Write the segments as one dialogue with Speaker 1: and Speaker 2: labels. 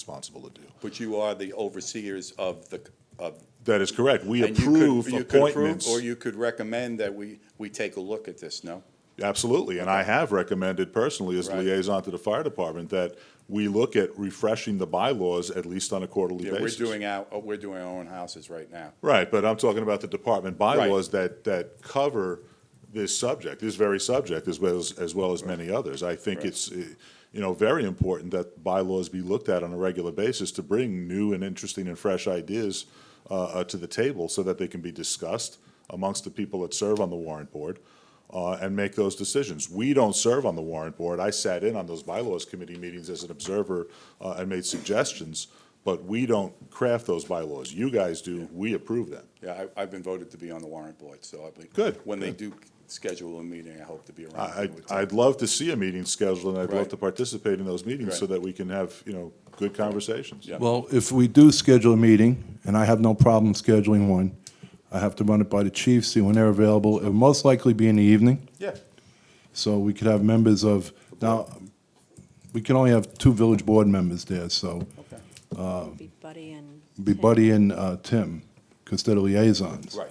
Speaker 1: responsible to do.
Speaker 2: But you are the overseers of the, of.
Speaker 1: That is correct. We
Speaker 2: and you could-
Speaker 1: approve
Speaker 2: you could approve,
Speaker 1: appointments.
Speaker 2: Or you could recommend that we, we take a look at this, no?
Speaker 1: Absolutely, and I have recommended personally as
Speaker 2: Right.
Speaker 1: liaison to the fire department that we look at refreshing the bylaws at least on a quarterly
Speaker 2: Yeah, we're
Speaker 1: basis.
Speaker 2: doing our, oh, we're doing our own houses right now.
Speaker 1: Right, but I'm talking about the department bylaws that, that cover this subject, this very subject, as well as, as well as many others. I think
Speaker 2: Right.
Speaker 1: it's, eh, you know, very important that bylaws be looked at on a regular basis to bring new and interesting and fresh ideas uh, uh, to the table so that they can be discussed amongst the people that serve on the warrant board uh, and make those decisions. We don't serve on the warrant board. I sat in on those bylaws committee meetings as an observer uh, and made suggestions, but we don't craft those bylaws. You guys do, we approve them.
Speaker 2: Yeah, I, I've been voted to be on the warrant board, so I'll be.
Speaker 1: Good,
Speaker 2: When they
Speaker 1: good.
Speaker 2: do schedule a meeting, I hope to be around.
Speaker 1: I, I- I'd love to see a meeting scheduled, and I'd love
Speaker 2: Right.
Speaker 1: to participate in those meetings so
Speaker 2: Right.
Speaker 1: that we can have, you know, good conversations.
Speaker 2: Yeah.
Speaker 3: Well, if we do schedule a meeting, and I have no problem scheduling one, I have to run it by the chief, see when they're available. It'll most likely be in the evening,
Speaker 2: Yeah,
Speaker 3: so we could have members of, now, we can only have two village board members there, so
Speaker 2: okay,
Speaker 4: Be Buddy and.
Speaker 3: it'd be
Speaker 4: Tim.
Speaker 3: Buddy and uh, Tim, because they're the liaisons.
Speaker 2: right.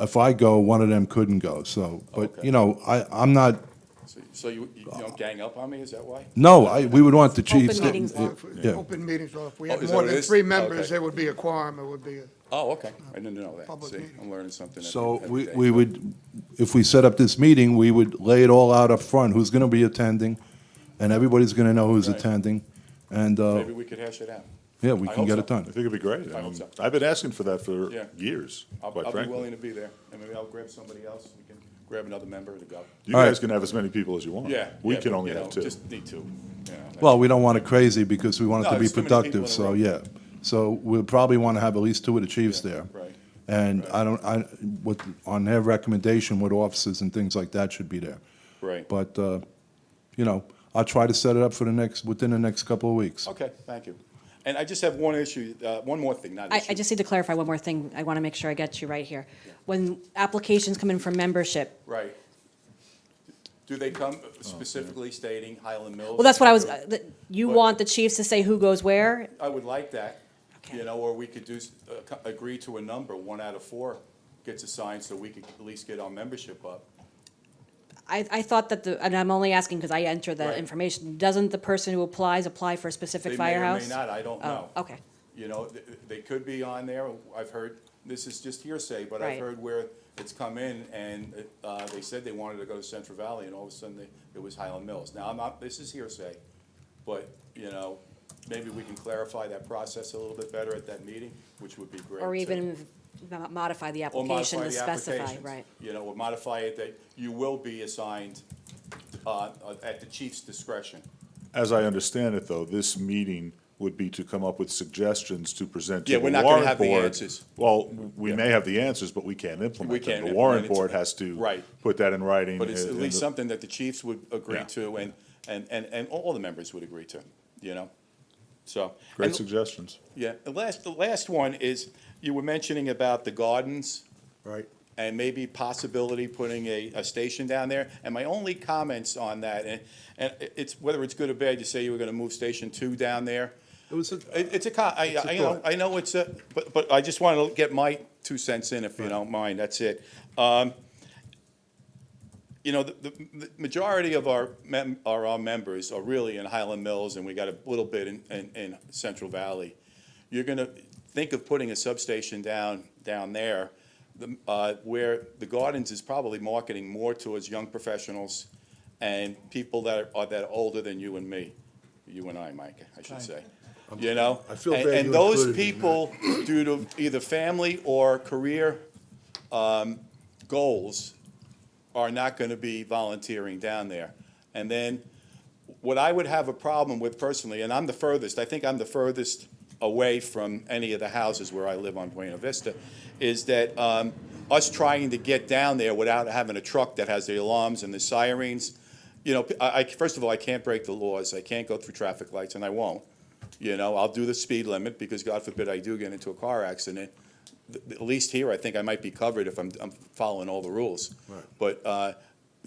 Speaker 3: If I go, one of them couldn't go, so, but,
Speaker 2: Okay.
Speaker 3: you know, I, I'm not,
Speaker 2: So- So you, you don't gang up on me, is that why?
Speaker 3: no, I, we would want the chief.
Speaker 4: Open meetings law.
Speaker 3: Yeah.
Speaker 5: uh, Open meetings law. If we
Speaker 2: Oh,
Speaker 5: had
Speaker 2: is that
Speaker 5: more
Speaker 2: what it
Speaker 5: than
Speaker 2: is?
Speaker 5: three
Speaker 2: Okay.
Speaker 5: members, there would be a quorum, it would be, a-
Speaker 2: Oh, okay, I didn't know that.
Speaker 5: Public
Speaker 2: See,
Speaker 5: meeting.
Speaker 2: I'm learning something. every-
Speaker 3: So
Speaker 2: every
Speaker 3: we,
Speaker 2: day.
Speaker 3: we would, if we set up this meeting, we would lay it all out up front, who's gonna be attending, and everybody's gonna know who's
Speaker 2: Right.
Speaker 3: attending, and, uh,
Speaker 2: Maybe we could hash it out.
Speaker 3: yeah, we
Speaker 2: I
Speaker 3: can
Speaker 2: hope
Speaker 3: get
Speaker 2: so.
Speaker 3: it done.
Speaker 1: I think it'd be great.
Speaker 2: I hope
Speaker 1: Um,
Speaker 2: so.
Speaker 1: I've been asking for that for
Speaker 2: Yeah.
Speaker 1: years,
Speaker 2: I'll,
Speaker 1: quite
Speaker 2: I'll be
Speaker 1: frankly.
Speaker 2: willing to be there, and maybe I'll grab somebody else, we can grab another member to go.
Speaker 1: You
Speaker 3: All right.
Speaker 1: guys can have as many people as you want.
Speaker 2: Yeah.
Speaker 1: We
Speaker 2: yeah,
Speaker 1: can
Speaker 2: but,
Speaker 1: only
Speaker 2: you
Speaker 1: have
Speaker 2: know,
Speaker 1: two.
Speaker 2: Just need two. you know, that's-
Speaker 3: Well, we don't want it crazy, because we want it
Speaker 2: No,
Speaker 3: to be
Speaker 2: it's too many people in
Speaker 3: productive,
Speaker 2: a
Speaker 3: so,
Speaker 2: room.
Speaker 3: yeah. So we'll probably wanna have at least two of the chiefs
Speaker 2: Yeah,
Speaker 3: there.
Speaker 2: right,
Speaker 3: And
Speaker 2: right.
Speaker 3: I don't, I, what, on their recommendation, what officers and things like that should be there.
Speaker 2: Right.
Speaker 3: But, uh, you know, I'll try to set it up for the next, within the next couple of weeks.
Speaker 2: Okay, thank you. And I just have one issue, uh, one more thing, not
Speaker 4: I,
Speaker 2: issue.
Speaker 4: I just need to clarify one more thing. I want to make sure I get you right here. When applications come in for membership,
Speaker 2: Right. Do they come specifically stating Highland Mills?
Speaker 4: well, that's what I was, uh, that- you
Speaker 2: But-
Speaker 4: want the chiefs to say who goes where?
Speaker 2: I would like that, you
Speaker 4: Okay.
Speaker 2: know, or we could do, s- uh, co- agree to a number, one out of four gets assigned, so we could at least get our membership up.
Speaker 4: I, I thought that the, and I'm only asking because I enter the
Speaker 2: Right.
Speaker 4: information. Doesn't the person who applies apply for a specific firehouse?
Speaker 2: They may or may not, I don't know.
Speaker 4: Oh, okay.
Speaker 2: You know, th- they could be on there, I've heard, this is just hearsay, but I've
Speaker 4: Right.
Speaker 2: heard where it's come in and uh, they said they wanted to go to Central Valley and all of a sudden they- it was Highland Mills. Now, I'm not, this is hearsay, but, you know, maybe we can clarify that process a little bit better at that meeting, which would be great.
Speaker 4: Or
Speaker 2: too.
Speaker 4: even mo- modify the
Speaker 2: Or modify
Speaker 4: application to
Speaker 2: the
Speaker 4: specify,
Speaker 2: applications,
Speaker 4: right?
Speaker 2: You know, or modify it that you will be assigned uh, at the chief's discretion.
Speaker 1: As I understand it, though, this meeting would be to come up with suggestions to present to
Speaker 2: Yeah,
Speaker 1: the
Speaker 2: we're
Speaker 1: warrant board.
Speaker 2: not gonna have the answers.
Speaker 1: Well, we may have the answers, but we can't implement them.
Speaker 2: can't
Speaker 1: The
Speaker 2: implement
Speaker 1: warrant
Speaker 2: it.
Speaker 1: board has to.
Speaker 2: Right.
Speaker 1: Put that in writing.
Speaker 2: But it's
Speaker 1: and-
Speaker 2: at
Speaker 1: and
Speaker 2: least
Speaker 1: the-
Speaker 2: something that the chiefs would agree
Speaker 1: Yeah.
Speaker 2: to and, and, and, and all the members would agree to, you know? So.
Speaker 1: Great
Speaker 2: and-
Speaker 1: suggestions.
Speaker 2: Yeah, the last, the last one is, you were mentioning about the gardens
Speaker 3: Right.
Speaker 2: and maybe possibility putting a, a station down there. And my only comments on that, and, and it's, whether it's good or bad, you say you were gonna move Station Two down there.
Speaker 3: It was a-
Speaker 2: It- It's a co- I,
Speaker 3: It's a
Speaker 2: I know,
Speaker 3: thought.
Speaker 2: I know it's a, but, but I just wanna get my two cents in if you don't mind, that's it. Um, you know, the, the, the majority of our mem- are our members are really in Highland Mills, and we got a little bit in, in, in Central Valley. You're gonna think of putting a substation down, down there, the, uh, where the Gardens is probably marketing more towards young professionals and people that are, are that are older than you and me, you and I, Mike, I should say. You know,
Speaker 3: I feel
Speaker 2: and,
Speaker 3: bad
Speaker 2: and
Speaker 3: you
Speaker 2: those
Speaker 3: included me in
Speaker 2: people, due to either family or career, um, goals, are not going to be volunteering down there. And then what I would have a problem with personally, and I'm the furthest, I think I'm the furthest away from any of the houses where I live on Buena Vista, is that um, us trying to get down there without having a truck that has the alarms and the sirens, you know, I, I- first of all, I can't break the laws, I can't go through traffic lights, and I won't. You know, I'll do the speed limit because God forbid I do get into a car accident. Th- At least here, I think I might be covered if I'm, I'm following all the rules.
Speaker 3: Right.
Speaker 2: But, uh,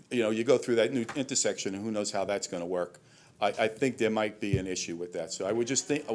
Speaker 2: you know, you go through that new intersection and who knows how that's gonna work. I, I think there might be an issue with that. So I would just think,